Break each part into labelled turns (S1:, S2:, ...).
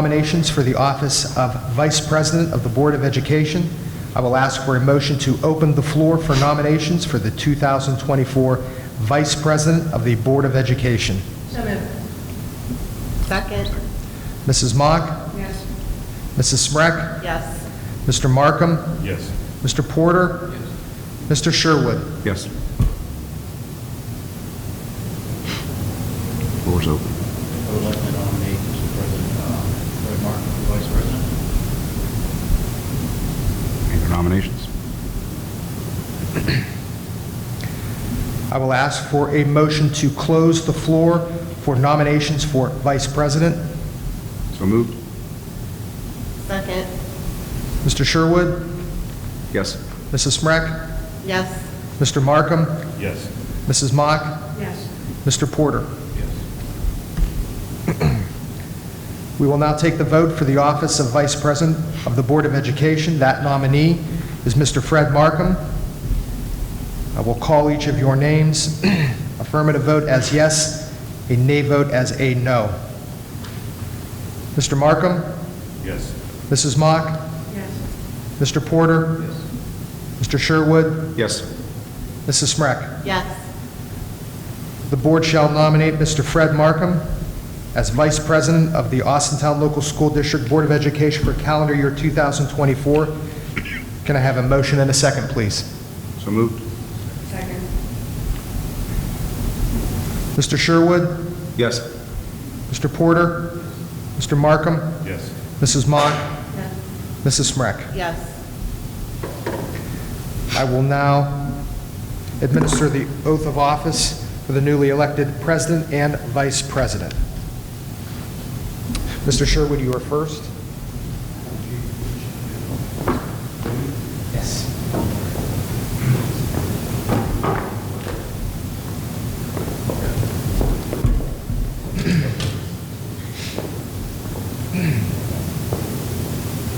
S1: Nominations for the office of Vice President of the Board of Education. I will ask for a motion to open the floor for nominations for the 2024 Vice President of the Board of Education.
S2: So moved.
S3: Second.
S1: Mrs. Mock,
S2: Yes.
S1: Mrs. Smrek,
S3: Yes.
S1: Mr. Markham,
S4: Yes.
S1: Mr. Porter, Mr. Sherwood.
S4: Yes. Floor's open.
S5: I would like to nominate Mr. President, uh, Roy Martin for Vice President.
S4: Any other nominations?
S1: I will ask for a motion to close the floor for nominations for Vice President.
S4: So moved?
S3: Second.
S1: Mr. Sherwood,
S4: Yes.
S1: Mrs. Smrek,
S3: Yes.
S1: Mr. Markham,
S4: Yes.
S1: Mrs. Mock,
S2: Yes.
S1: Mr. Porter.
S4: Yes.
S1: We will now take the vote for the office of Vice President of the Board of Education. That nominee is Mr. Fred Markham. I will call each of your names. Affirmative vote as yes, a nay vote as a no. Mr. Markham,
S4: Yes.
S1: Mrs. Mock,
S2: Yes.
S1: Mr. Porter,
S4: Yes.
S1: Mr. Sherwood,
S4: Yes.
S1: Mrs. Smrek.
S3: Yes.
S1: The board shall nominate Mr. Fred Markham as Vice President of the Austintown Local School District Board of Education for calendar year 2024. Can I have a motion and a second, please?
S4: So moved?
S2: Second.
S1: Mr. Sherwood,
S4: Yes.
S1: Mr. Porter, Mr. Markham,
S4: Yes.
S1: Mrs. Mock,
S2: Yes.
S1: Mrs. Smrek.
S3: Yes.
S1: I will now administer the oath of office for the newly elected president and vice president. Mr. Sherwood, you are first. Yes.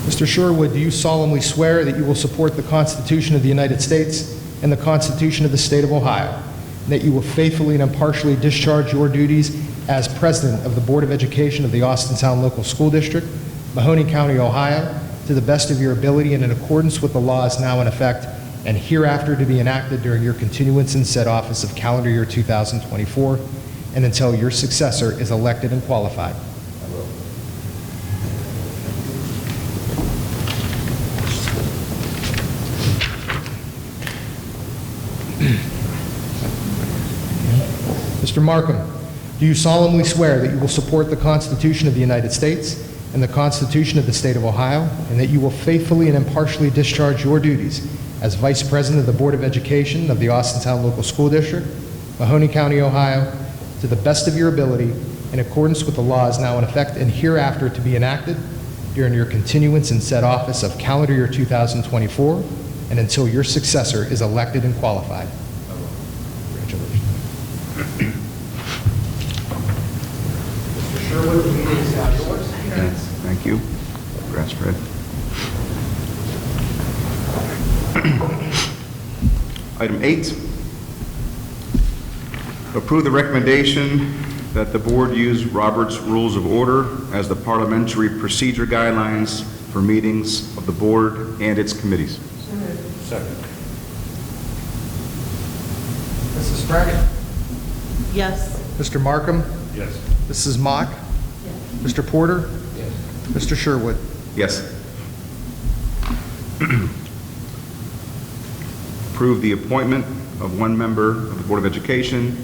S1: Mr. Sherwood, do you solemnly swear that you will support the Constitution of the United States and the Constitution of the State of Ohio, and that you will faithfully and impartially discharge your duties as President of the Board of Education of the Austintown Local School District, Mahoning County, Ohio, to the best of your ability and in accordance with the laws now in effect and hereafter to be enacted during your continuance in said office of calendar year 2024 and until your successor is elected and qualified? Mr. Markham, do you solemnly swear that you will support the Constitution of the United States and the Constitution of the State of Ohio, and that you will faithfully and impartially discharge your duties as Vice President of the Board of Education of the Austintown Local School District, Mahoning County, Ohio, to the best of your ability, in accordance with the laws now in effect and hereafter to be enacted during your continuance in said office of calendar year 2024, and until your successor is elected and qualified? Congratulations. Mr. Sherwood, the meeting is now yours.
S4: Thank you. Congrats, Fred. Item eight, approve the recommendation that the board use Robert's Rules of Order as the parliamentary procedure guidelines for meetings of the board and its committees.
S2: So moved.
S1: Mrs. Sprague.
S3: Yes.
S1: Mr. Markham.
S4: Yes.
S1: Mrs. Mock. Mr. Porter. Mr. Sherwood.
S4: Yes. Approve the appointment of one member of the Board of Education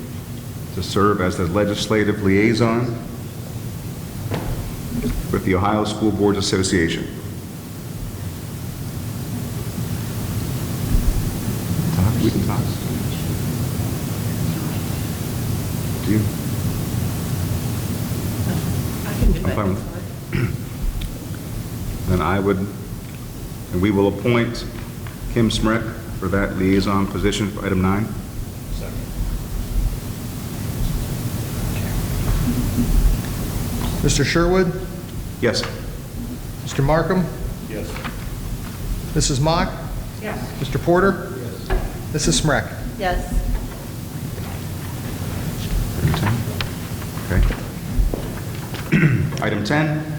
S4: to serve as the legislative liaison with the Ohio School Boards Association. Todd, we can talk. Do you?
S3: I can do
S4: I'm
S3: it.
S4: fine. Then I would, and we will appoint Kim Smrek for that liaison position for item nine.
S1: Mr. Sherwood.
S4: Yes?
S1: Mr. Markham.
S4: Yes.
S1: Mrs. Mock.
S2: Yes.
S1: Mr. Porter. Mrs. Smrek.
S3: Yes.
S4: Okay. Item 10,